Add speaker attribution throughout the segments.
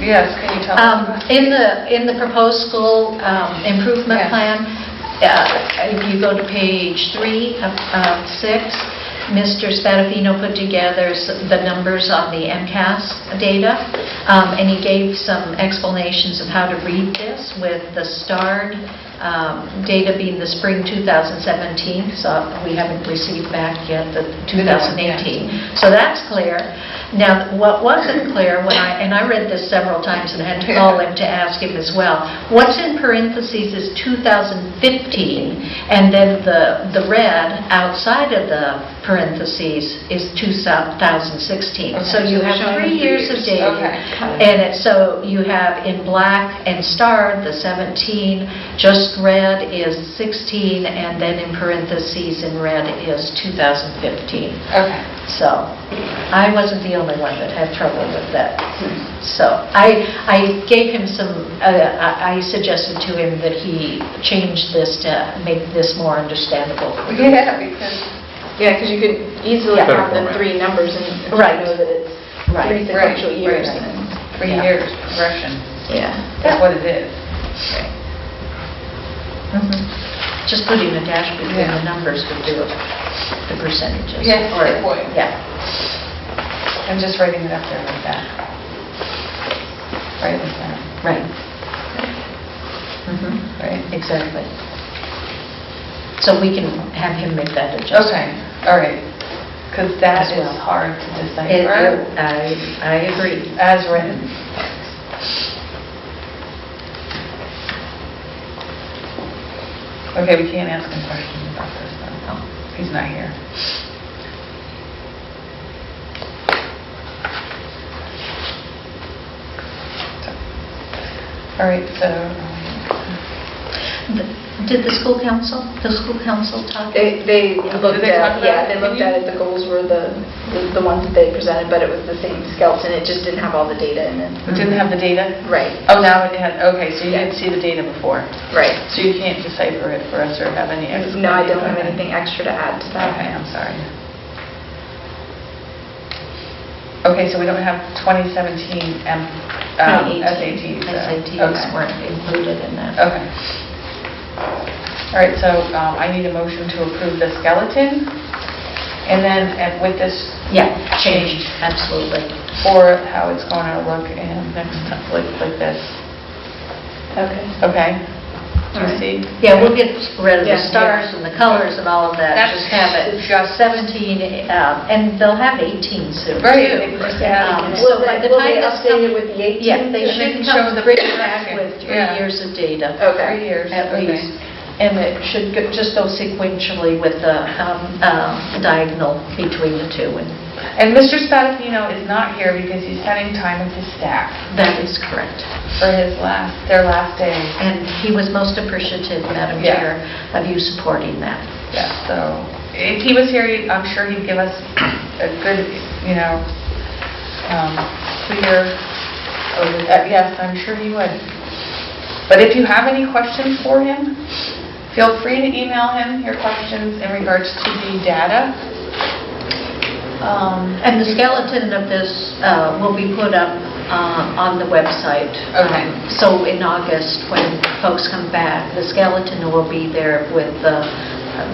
Speaker 1: Yes, can you tell
Speaker 2: Um,
Speaker 1: us?
Speaker 2: In the, in the proposed school um, improvement
Speaker 1: Yeah.
Speaker 2: plan, uh, if you go to page three of of six, Mr. Spadafino put together s- the numbers on the MCAS data, um, and he gave some explanations of how to read this with the starred um, data being the spring 2017, so we haven't received back yet the
Speaker 1: The new one, yeah.
Speaker 2: 2018. So that's clear. Now, what wasn't clear, when I, and I read this several times and had to call him to ask him as well, what's in parentheses is 2015, and then the, the red outside of the parentheses is 2016. So
Speaker 1: Okay,
Speaker 2: you
Speaker 1: so
Speaker 2: have
Speaker 1: showing
Speaker 2: three years of data.
Speaker 1: Okay.
Speaker 2: And it, so you have in black and starred, the 17, just red is 16, and then in parentheses in red is 2015.
Speaker 1: Okay.
Speaker 2: So I wasn't the only one that had trouble with that. So I, I gave him some, uh, I I suggested to him that he change this to make this more understandable.
Speaker 1: Yeah, because,
Speaker 3: Yeah, because you could easily
Speaker 2: Yeah.
Speaker 3: have the
Speaker 4: Better format.
Speaker 3: three numbers and and
Speaker 2: Right.
Speaker 3: know that it's three
Speaker 2: Right.
Speaker 1: Right,
Speaker 3: sequential
Speaker 1: right,
Speaker 3: years.
Speaker 1: right.
Speaker 3: and-
Speaker 1: three
Speaker 2: Yeah.
Speaker 1: years progression
Speaker 3: Yeah.
Speaker 1: is what it is.
Speaker 2: Mhm.
Speaker 1: Mm-hmm.
Speaker 2: Just putting a dash between
Speaker 1: Yeah.
Speaker 2: the numbers would do it, the percentages.
Speaker 1: Yes,
Speaker 2: Or-
Speaker 1: it would.
Speaker 2: Yeah.
Speaker 1: I'm just writing it up there like that. Right in the center,
Speaker 2: Right. Mhm,
Speaker 1: right?
Speaker 2: Exactly. So we can have him make that adjustment.
Speaker 1: Okay, all right. Because that
Speaker 2: As
Speaker 1: is
Speaker 2: well.
Speaker 1: hard to
Speaker 2: It-
Speaker 1: decipher
Speaker 2: it- I, I agree.
Speaker 1: as written. Okay, we can't ask him questions about this, though. He's not here. All right, so,
Speaker 2: Did the school council, the school council talk?
Speaker 3: They, they looked
Speaker 1: they talk
Speaker 3: at,
Speaker 1: about
Speaker 3: yeah,
Speaker 1: it?
Speaker 3: they looked at it, the goals were the, the- the ones that they presented, but it was the same skeleton, it just didn't have all the data in it.
Speaker 1: it didn't have the data?
Speaker 3: Right,
Speaker 1: um, Oh, now it had, okay, so you didn't see the data before.
Speaker 3: right.
Speaker 1: So you can't decipher it for us or have any explanation?
Speaker 3: No, I don't have
Speaker 1: Okay.
Speaker 3: anything extra to add to
Speaker 1: Okay,
Speaker 3: that.
Speaker 1: I'm sorry. Okay, so we don't have 2017 M- um, SATs. uh, okay.
Speaker 2: SATs weren't included in that.
Speaker 1: Okay. All right, so um, I need a motion to approve the skeleton, and then and with this
Speaker 2: Yeah, changed, absolutely.
Speaker 1: for how it's going to look in next, time, like like this,
Speaker 3: Okay.
Speaker 1: okay? Do you
Speaker 3: All right.
Speaker 1: see?
Speaker 2: Yeah, we'll get rid of the
Speaker 3: Yeah.
Speaker 2: stars and the colors and all of that.
Speaker 1: That's-
Speaker 2: Just have it, 17, um, and they'll have 18 soon.
Speaker 1: Right,
Speaker 2: too.
Speaker 1: they just add
Speaker 2: Um,
Speaker 1: it.
Speaker 2: So by the
Speaker 3: Will
Speaker 2: time
Speaker 3: they
Speaker 2: this
Speaker 3: update
Speaker 2: comes-
Speaker 3: it with the 18?
Speaker 2: Yeah, they
Speaker 1: They
Speaker 2: should
Speaker 1: can show
Speaker 2: come
Speaker 1: the
Speaker 2: bring
Speaker 1: progression.
Speaker 2: back with three
Speaker 1: Yeah.
Speaker 2: years of data.
Speaker 3: Okay.
Speaker 1: Three years,
Speaker 2: at
Speaker 1: okay.
Speaker 2: least. And it should go- just go sequentially with the um, um, diagonal between the two, and
Speaker 1: And Mr. Spadafino is not here because he's spending time with his staff
Speaker 2: that is correct.
Speaker 1: for his last, their last day.
Speaker 2: And he was most appreciative, Madam
Speaker 1: Yeah.
Speaker 2: Chair, of you supporting that.
Speaker 1: Yeah, so if he was here, he- I'm sure he'd give us a good, you know, um, clear, uh, yes, I'm sure he would. But if you have any questions for him, feel free to email him your questions in regards to the data. Um,
Speaker 2: And the skeleton of this uh, will be put up uh, on the website.
Speaker 1: Okay.
Speaker 2: Um, So in August, when folks come back, the skeleton will be there with the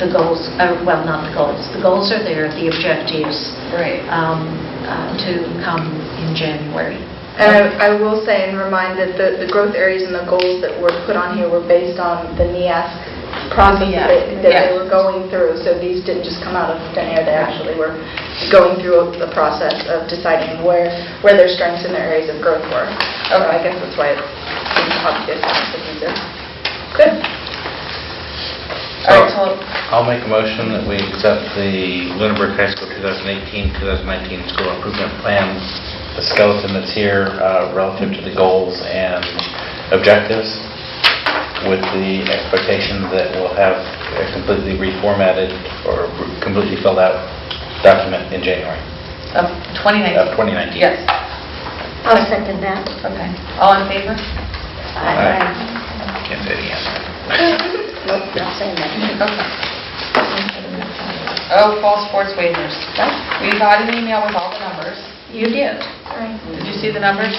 Speaker 2: the goals, uh, well, not the goals, the goals are there, the objectives
Speaker 1: Right.
Speaker 2: um, uh, to come in January.
Speaker 3: And I I will say and remind that the the growth areas and the goals that were put on here were based on the NEASC process
Speaker 1: Yeah.
Speaker 3: that that they
Speaker 1: Yeah.
Speaker 3: were going through. So these didn't just come out of thin air, they actually were going through the process of deciding where where their strengths and their areas of growth were. So I guess that's why it's it's obvious and it's cohesive. Good.
Speaker 1: All right, so
Speaker 4: I'll make a motion that we accept the Lunenburg High School 2018-2019 School Improvement Plan, the skeleton that's here uh, relative to the goals and objectives, with the expectation that we'll have a completely reformatted or completely filled out document in January
Speaker 1: of 2019.
Speaker 4: of 2019.
Speaker 1: Yes,
Speaker 5: I'll second that.
Speaker 1: okay. All in favor?
Speaker 4: Aye. Can't say it again.
Speaker 5: Nope, not saying that.
Speaker 1: Okay. Oh, fall sports waivers. We got an email with all the numbers.
Speaker 2: You did.
Speaker 1: Did you see the numbers?